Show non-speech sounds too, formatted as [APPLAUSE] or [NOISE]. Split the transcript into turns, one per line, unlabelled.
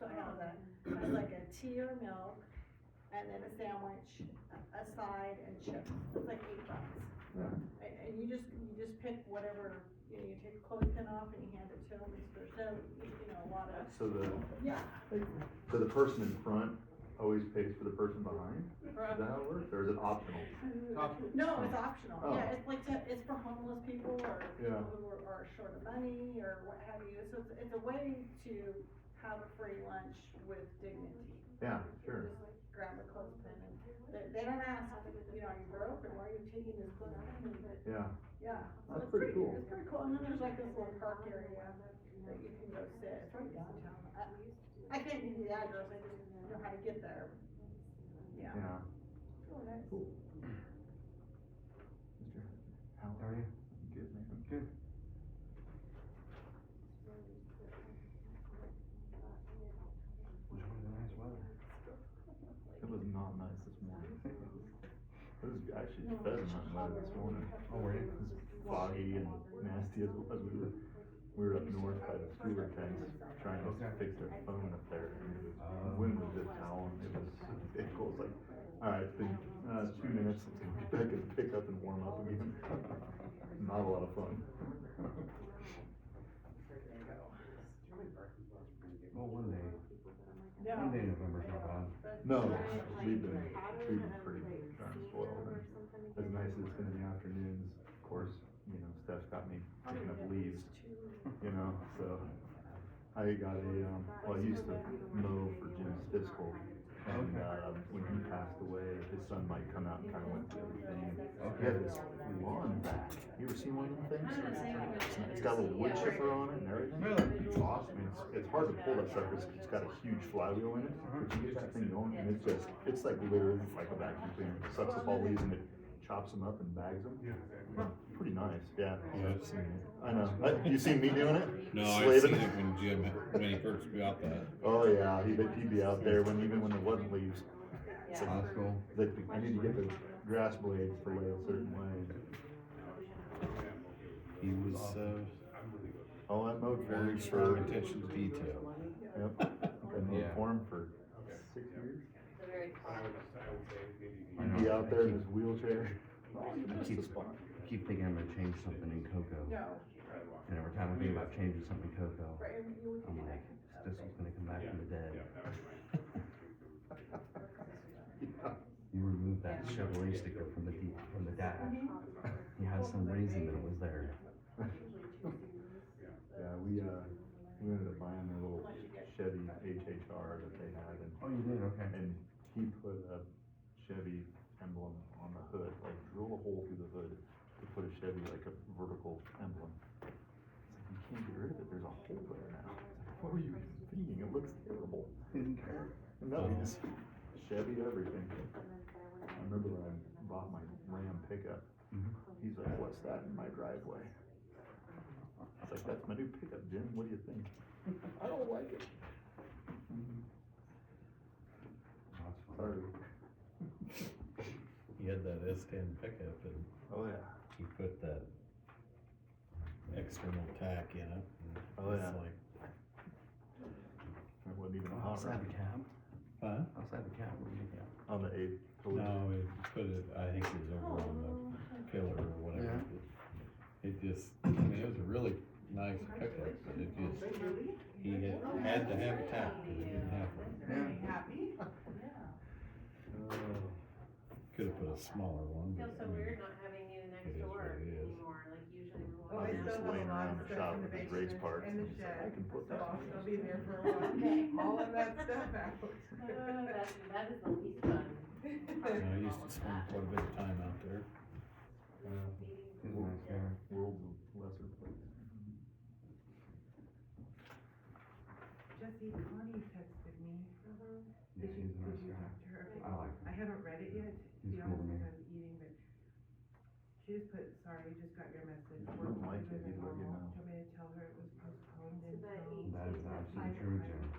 pound that, that's like a tea or milk, and then a sandwich, a- a side, and chips, it's like eight bucks.
Right.
And, and you just, you just pick whatever, you know, you take a clothing pin off and you hand it to them, there's no, you know, a lot of,
So the,
yeah.
so the person in front always pays for the person behind? Is that how it works, or is it optional?
No, it's optional,
Oh.
yeah, it's like, to- it's for homeless people or people
Yeah.
who are, are short of money or what have you, so it's, it's a way to have a free lunch with dignity.
Yeah, sure.
Grab a clothespin and, they, they don't ask, you know, are you broke or why are you taking this clothing? But,
Yeah,
yeah. so
That's
it's
pretty cool.
It's pretty cool, and then there's like this little park area that you can go sit, it's right downtown. I, I can't give you the address, I just know how to get there. Yeah.
yeah.
Cool, nice.
Mr. How are you? Good, man. Good.
Enjoying the nice weather.
[LAUGHS]
It was not nice this morning. It was actually pheasant hunting weather this morning.
Oh, were you?
It was foggy and nasty as well. We were, we were up north by the cooler tanks trying to
Okay.
fix their phone up there.
Uh,
Wind was just howling. It was, it was like, all right, it's been, uh, two minutes until we back and pick up and warm up again. [LAUGHS] Not a lot of fun.
Well, one day,
No.
one day November's not bad.
No, we've been, we've been pretty darn spoiled. and As nice as it's been in the afternoons, of course, you know, Steph's got me picking up leaves you know, so. I got a, um, well, I used to mow for Jim Stiskel, and, uh, when he passed away, his son Mike come out and kinda went through everything. He had this lawn back, you ever seen one of them things? It's got a little wood chipper on it and everything.
Really?
It's awesome, it's, it's hard to pull that sucker, because it's got a huge flywheel in it, but you get that thing going, and it's just, it's like literally like a vacuum cleaner, It sucks up all leaves and it chops them up and bags them. Pretty nice, yeah.
Yeah, I've seen it.
I know. Uh, You seen me doing it?
No,
Slaving.
I've seen it when Jim, when he
[LAUGHS]
first bought that.
Oh yeah, he'd, be- he'd be out there when even when there wasn't leaves. So,
That's cool.
like, I need to get the grass blades to lay a certain way.
He was, uh,
Oh, I mowed for
very
him
strong
for
attention to
[LAUGHS]
detail.
yep. I mowed
Yeah.
for him for six years.
Oh,
I
He'd be
know.
out there in his wheelchair.
I keep, I keep thinking I'm gonna change something in cocoa,
No,
and every time I think about changing something in cocoa,
right, and you would
I'm
do that.
like, this is gonna come back from the dead. [LAUGHS] You removed that Chevrolet sticker from the deep, from the dash.
Mm-hmm.
You had some reason that it was there.
[LAUGHS] Yeah, we uh, we ended up buying their little Chevy HHR that they had, and
Oh, you did, okay.
and he put a Chevy emblem on the hood, like drill a hole through the hood to put a Chevy, like a vertical emblem. It's like, you can't get rid of it, there's a hole there now. It's like, What were you thinking? It looks terrible.
Didn't care.
And now we just Chevy everything. I remember when I bought my Ram pickup,
Mhm.
he's like, what's that in my driveway? I was like, that's my new pickup, Jim, what do you think? [LAUGHS] I don't like it.
That's fine.
Sorry.
He had that S ten pickup and
Oh, yeah.
he put that external tack in it. and
Oh,
it's
yeah.
like,
It wasn't even a hot
Outside
rod
the cab?
Huh?
Outside the cab, what do you think?
on the eighth.
No, he put it, I think it was over on the pillar or whatever. It just, I mean, it was a really nice pickup, but it just, he had, had to have a tack, 'cause he didn't have one. Could've put a smaller one. but,
Feels so
I mean,
weird not having you next door
It is what it is.
anymore, like usually
Well, Oh, I
we're
I'm
all
still
just
have a
down.
laying
lot
around
of
the
stuff
shop
in
with
the
these race
basement
parts,
and the
and it's like, I
shed,
can put
So
that in
I'll still
there.
be there
[LAUGHS]
for a while, all of that
[LAUGHS]
stuff
Oh,
out.
that's, that is the least fun. part
I
of
used to
all of
spend
that.
quite a bit of time out there.
It's nice there.
World's a lesser place.
Jesse Connie texted me.
Yeah,
Did you,
he's a nice
did you
guy.
talk to her?
I like
I
him.
haven't read it yet,
He's
the
cool to
office
me.
I'm eating, but she just put, sorry, just got your message.
I
We're
don't like
leaving
it, he'd
and
let you
I'll-
know.
Do you want me to tell her it was postponed
So that
until?
he-
That is absolutely true, Jim.